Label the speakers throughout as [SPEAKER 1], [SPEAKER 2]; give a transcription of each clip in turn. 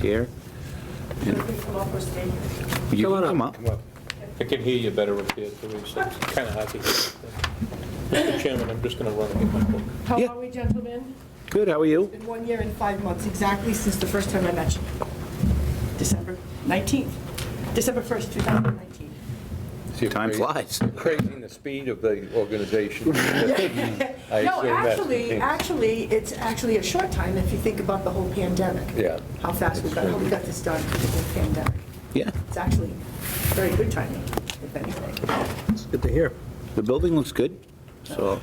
[SPEAKER 1] here. You
[SPEAKER 2] Come on
[SPEAKER 1] can
[SPEAKER 2] up.
[SPEAKER 1] come up.
[SPEAKER 3] Well, I can hear you better up here, Teresa. It's kind of hard to hear. Mr. Chairman, I'm just going to run and get my book.
[SPEAKER 4] How
[SPEAKER 1] Yeah.
[SPEAKER 4] are we, gentlemen?
[SPEAKER 1] Good, how are you?
[SPEAKER 4] Been one year and five months exactly since the first time I met you. December 19th, December 1st, 2019.
[SPEAKER 1] Time flies.
[SPEAKER 5] Crazing the speed of the organization. I
[SPEAKER 4] No,
[SPEAKER 5] assume that's the
[SPEAKER 4] actually,
[SPEAKER 5] case.
[SPEAKER 4] actually, it's actually a short time if you think about the whole pandemic.
[SPEAKER 5] Yeah.
[SPEAKER 4] How fast we got, how we got this done with the whole pandemic.
[SPEAKER 1] Yeah,
[SPEAKER 4] It's actually very good timing, if anything.
[SPEAKER 2] It's good to hear.
[SPEAKER 1] the building looks good, so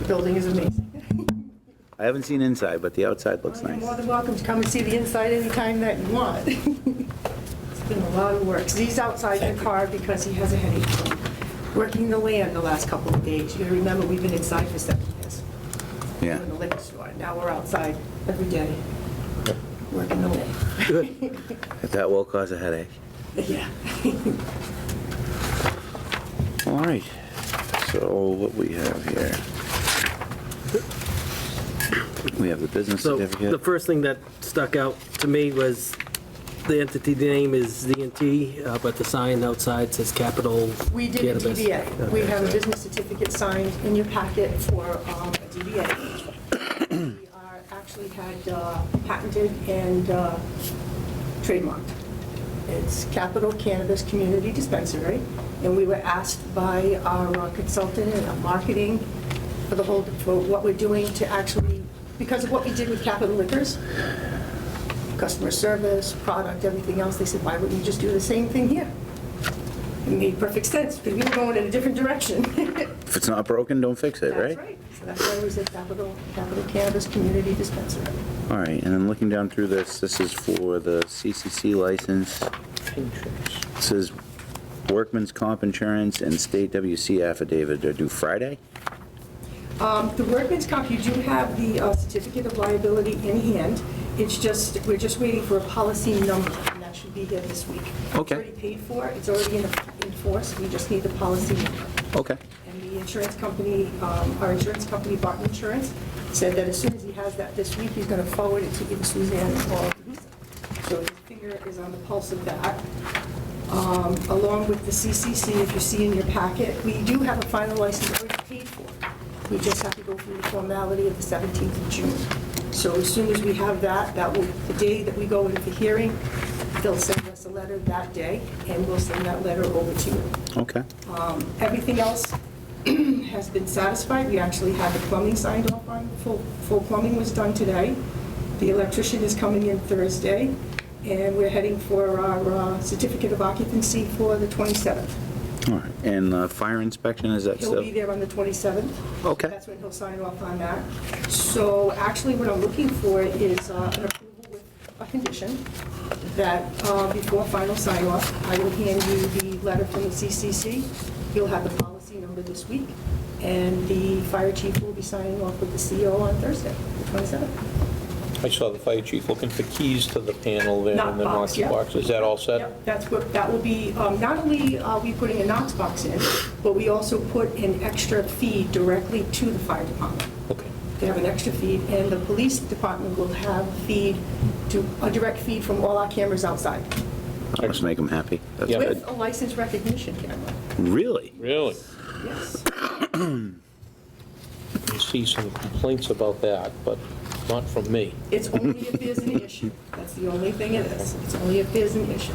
[SPEAKER 4] The building is amazing.
[SPEAKER 1] I haven't seen inside, but the outside looks
[SPEAKER 4] You're
[SPEAKER 1] nice.
[SPEAKER 4] more than welcome to come and see the inside anytime that you want. It's been a lot of work. He's outside the car because he has a headache from working the land the last couple of days. You gotta remember, we've been inside for seven years.
[SPEAKER 1] Yeah.
[SPEAKER 4] We're in the liquor store. Now we're outside every day, working the land.
[SPEAKER 1] That will cause a headache.
[SPEAKER 4] Yeah.
[SPEAKER 1] All right, so what we have here? We have the business
[SPEAKER 2] So the
[SPEAKER 1] certificate.
[SPEAKER 2] first thing that stuck out to me was the entity name is Z&T, uh, but the sign outside says Capital
[SPEAKER 4] We did a
[SPEAKER 2] Cannabis.
[SPEAKER 4] DBA. We have a business certificate signed in your packet for um, a DBA. We are- Actually had uh, patented and uh, trademarked. It's Capital Cannabis Community Dispensary, and we were asked by our uh, consultant and our marketing for the whole, for what we're doing to actually, because of what we did with Capital Liquors, customer service, product, everything else, they said, why wouldn't you just do the same thing here? It made perfect sense, because we were going in a different direction.
[SPEAKER 1] If it's not broken, don't fix it,
[SPEAKER 4] That's
[SPEAKER 1] right?
[SPEAKER 4] right. So that's why it was a Capital, Capital Cannabis Community Dispensary.
[SPEAKER 1] All right, and then looking down through this, this is for the CCC license. This is workman's comp insurance and state WC affidavit are due Friday?
[SPEAKER 4] Um, The workman's comp, you do have the uh, certificate of liability in hand. It's just, we're just waiting for a policy number, and that should be here this week. It's
[SPEAKER 1] Okay.
[SPEAKER 4] already paid for, it's already in in force, we just need the policy number.
[SPEAKER 1] Okay.
[SPEAKER 4] And the insurance company, um, our insurance company, Barton Insurance, said that as soon as he has that this week, he's going to forward it to either Suzanne or Lisa. So his finger is on the pulse of that. Um, Along with the CCC, if you see in your packet, we do have a final license already paid for. We just have to go through the formality of the 17th of June. So as soon as we have that, that will, the day that we go into the hearing, they'll send us a letter that day, and we'll send that letter over to you.
[SPEAKER 1] Okay.
[SPEAKER 4] Um, Everything else has been satisfied. We actually had the plumbing signed off on, full, full plumbing was done today. The electrician is coming in Thursday, and we're heading for our uh, certificate of occupancy for the 27th.
[SPEAKER 1] All right, and uh, fire inspection, is that
[SPEAKER 4] He'll
[SPEAKER 1] still?
[SPEAKER 4] be there on the 27th.
[SPEAKER 1] Okay.
[SPEAKER 4] That's when he'll sign off on that. So actually, what I'm looking for is uh, an approval with a condition that uh, before final sign off, I will hand you the letter from the CCC. You'll have the policy number this week, and the fire chief will be signing off with the CO on Thursday, the 27th.
[SPEAKER 3] I saw the fire chief looking for keys to the panel there
[SPEAKER 4] Knock
[SPEAKER 3] and the
[SPEAKER 4] box,
[SPEAKER 3] Knox
[SPEAKER 4] yeah.
[SPEAKER 3] box. Is that all set?
[SPEAKER 4] Yep, That's what, that will be, um, not only are we putting a Knox box in, but we also put an extra fee directly to the fire department.
[SPEAKER 3] Okay.
[SPEAKER 4] They have an extra feed, and the police department will have feed to, a direct feed from all our cameras outside.
[SPEAKER 1] That must make them happy. That's
[SPEAKER 3] Yeah.
[SPEAKER 1] good.
[SPEAKER 4] With a license recognition camera,
[SPEAKER 1] Really?
[SPEAKER 3] Really?
[SPEAKER 4] yes.
[SPEAKER 3] You see some complaints about that, but not from me.
[SPEAKER 4] It's only if there's an issue. That's the only thing it is. It's only if there's an issue.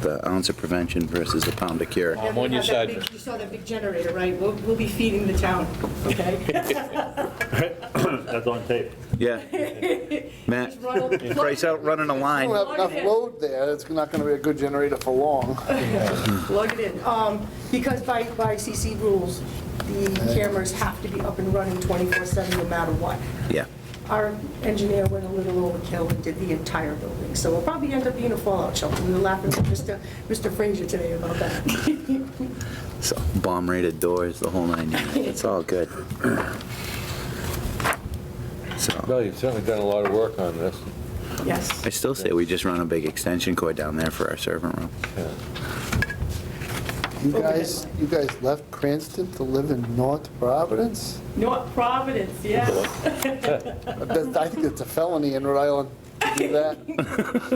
[SPEAKER 1] The ounce of prevention versus the pound of cure.
[SPEAKER 3] I'm on your
[SPEAKER 4] Have that
[SPEAKER 3] side.
[SPEAKER 4] big- You saw that big generator, right? We'll, we'll be feeding the town, okay?
[SPEAKER 6] That's on tape.
[SPEAKER 1] Yeah. Matt,
[SPEAKER 4] Just run a-
[SPEAKER 1] price out running a line.
[SPEAKER 7] don't have enough load there, it's not gonna be a good generator for long.
[SPEAKER 4] Plug it in. Um, Because by, by CC rules, the cameras have to be up and running 24/7 no matter what.
[SPEAKER 1] Yeah.
[SPEAKER 4] Our engineer went a little overkill and did the entire building, so we'll probably end up being a fallout shelter. We were laughing with Mr. Mr. Frazier today about that.
[SPEAKER 1] So bomb rated doors, the whole nine yards. It's all good. So
[SPEAKER 5] Well, you've certainly done a lot of work on this.
[SPEAKER 4] Yes.
[SPEAKER 1] I still say we just run a big extension cord down there for our servant room.
[SPEAKER 7] You guys, you guys left Cranston to live in North Providence?
[SPEAKER 4] North Providence, yes.
[SPEAKER 7] That- I think it's a felony in Rhode Island. do that?